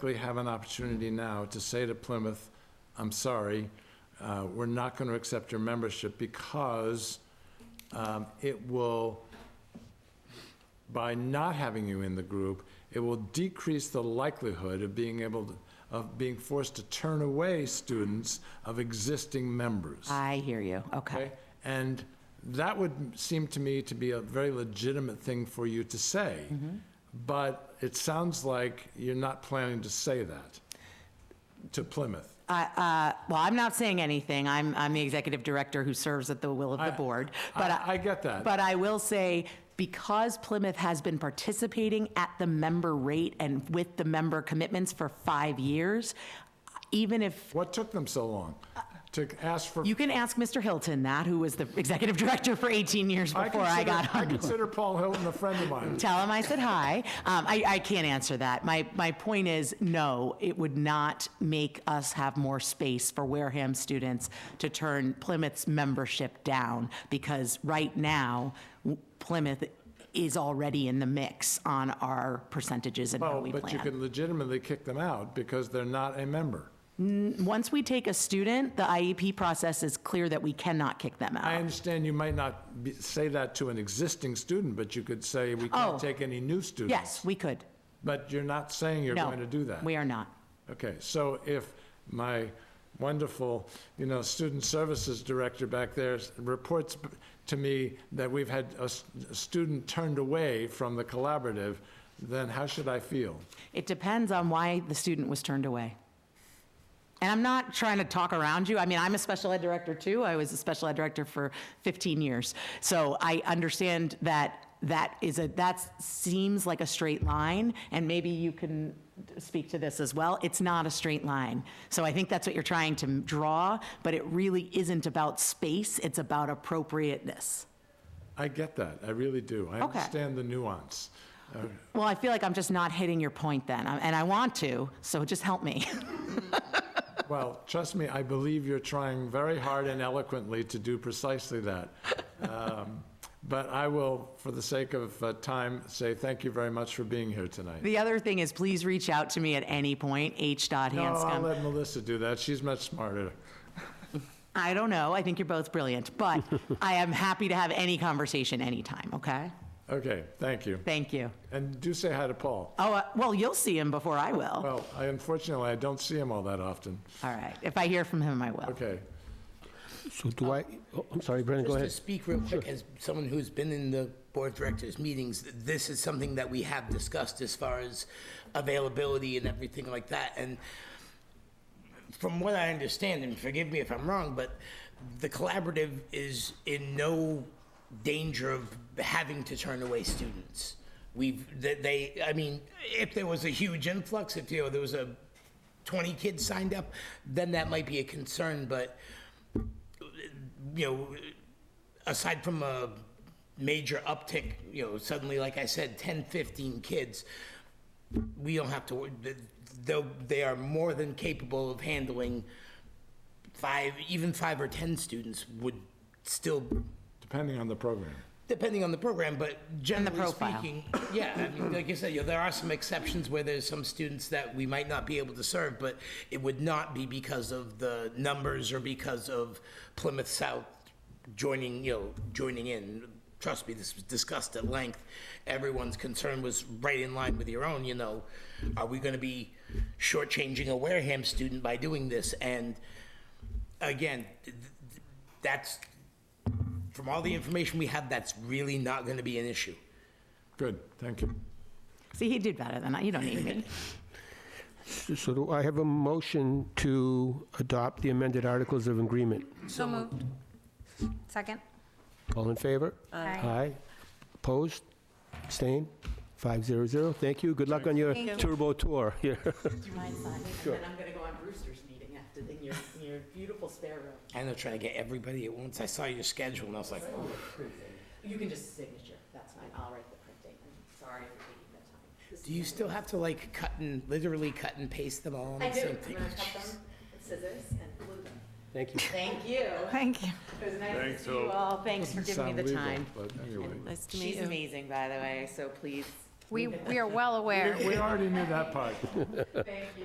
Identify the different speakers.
Speaker 1: basically have an opportunity now to say to Plymouth, I'm sorry, uh, we're not going to accept your membership because um, it will, by not having you in the group, it will decrease the likelihood of being able, to- of being forced to turn away students of existing members.
Speaker 2: I hear you, okay.
Speaker 1: Okay? And that would seem to me to be a very legitimate thing for you to say.
Speaker 2: Mm-hmm.
Speaker 1: But it sounds like you're not planning to say that to Plymouth.
Speaker 2: I- uh, Well, I'm not saying anything, I'm, I'm the executive director who serves at the will of
Speaker 1: I-
Speaker 2: the board,
Speaker 1: I-
Speaker 2: but
Speaker 1: I get that.
Speaker 2: But I will say, because Plymouth has been participating at the member rate and with the member commitments for five years, even if
Speaker 1: What took them so long to ask for?
Speaker 2: Uh, You can ask Mr. Hilton that, who was the executive director for 18 years before I
Speaker 1: consider-
Speaker 2: got on.
Speaker 1: I consider Paul Hilton a friend of mine.
Speaker 2: Tell him I said hi. Um, I, I can't answer that. My, my point is, no, it would not make us have more space for Wareham students to turn Plymouth's membership down, because right now, w- Plymouth is already in the mix on our percentages and how
Speaker 1: Oh,
Speaker 2: we
Speaker 1: but you
Speaker 2: plan.
Speaker 1: can legitimately kick them out because they're not a member.
Speaker 2: Once we take a student, the IEP process is clear that we cannot kick them out.
Speaker 1: I understand you might not be- say that to an existing student, but you could say, we
Speaker 2: Oh.
Speaker 1: can't take any new students.
Speaker 2: Yes, we could.
Speaker 1: But you're not saying you're
Speaker 2: No,
Speaker 1: going to do that.
Speaker 2: We are not.
Speaker 1: Okay, so if my wonderful, you know, student services director back there s- reports b- to me that we've had a s- a student turned away from the collaborative, then how should I feel?
Speaker 2: It depends on why the student was turned away. And I'm not trying to talk around you. I mean, I'm a special ed director too. I was a special ed director for 15 years. So I understand that that is a, that seems like a straight line, and maybe you can speak to this as well. It's not a straight line. So I think that's what you're trying to draw, but it really isn't about space, it's about appropriateness.
Speaker 1: I get that, I really do. I
Speaker 2: Okay.
Speaker 1: understand the nuance.
Speaker 2: Well, I feel like I'm just not hitting your point then, and I want to, so just help me.
Speaker 1: Well, trust me, I believe you're trying very hard and eloquently to do precisely that. Um, But I will, for the sake of uh, time, say thank you very much for being here tonight.
Speaker 2: The other thing is, please reach out to me at any point,
Speaker 1: No, I'll
Speaker 2: h.hanscom.
Speaker 1: let Melissa do that, she's much smarter.
Speaker 2: I don't know, I think you're both brilliant, but I am happy to have any conversation anytime, okay?
Speaker 1: Okay, thank you.
Speaker 2: Thank you.
Speaker 1: And do say hi to Paul.
Speaker 2: Oh, uh, well, you'll see him before I will.
Speaker 1: Well, I unfortunately, I don't see him all that often.
Speaker 2: All right, if I hear from him, I will.
Speaker 1: Okay.
Speaker 3: So do I, oh, I'm sorry, Brendan, go
Speaker 4: Just to
Speaker 3: ahead.
Speaker 4: speak real quick, as someone who's been in the board of directors meetings, this is something that we have discussed as far as availability and everything like that. And from what I understand, and forgive me if I'm wrong, but the collaborative is in no danger of having to turn away students. We've, that they, I mean, if there was a huge influx, if, you know, there was a 20 kids signed up, then that might be a concern, but, you know, aside from a major uptick, you know, suddenly, like I said, 10, 15 kids, we don't have to, wor- th- they'll, they are more than capable of handling five, even five or 10 students would still,
Speaker 1: Depending on the program.
Speaker 4: depending on the program, but generally
Speaker 2: profile.
Speaker 4: speaking, yeah, I mean, like you said, you know, there are some exceptions where there's some students that we might not be able to serve, but it would not be because of the numbers or because of Plymouth South joining, you know, joining in. Trust me, this was discussed at length. Everyone's concern was right in line with your own, you know. Are we gonna be shortchanging a Wareham student by doing this? And again, th- th- that's, from all the information we have, that's really not gonna be an issue.
Speaker 1: Good, thank you.
Speaker 2: See, he did better than I, you don't need me.
Speaker 3: So do I have a motion to adopt the amended Articles of Agreement?
Speaker 5: So moved. Second?
Speaker 3: All in favor? Aye. Opposed? Abstain? 500. Thank you. Good luck on your turbo tour. Yeah.
Speaker 2: Do you mind signing? And then I'm gonna go on Brewster's meeting after, in your, in your beautiful spare room.
Speaker 4: I know trying to get everybody at once. I saw your schedule and I was like, oh.
Speaker 2: You can just signature, that's fine, I'll write the printing. Sorry for taking that time.
Speaker 4: do you still have to like cut and literally cut and paste them all on the same thing?
Speaker 2: scissors and glue them.
Speaker 3: Thank you.
Speaker 2: Thank you.
Speaker 5: Thank you.
Speaker 2: It was nice to see you all. Thanks for giving me
Speaker 1: Sound
Speaker 2: the
Speaker 1: legal,
Speaker 2: time.
Speaker 1: But anyway,
Speaker 5: Nice to meet
Speaker 2: She's
Speaker 5: you.
Speaker 2: amazing, by the way, so please
Speaker 5: We, we are well aware.
Speaker 1: We already knew that part.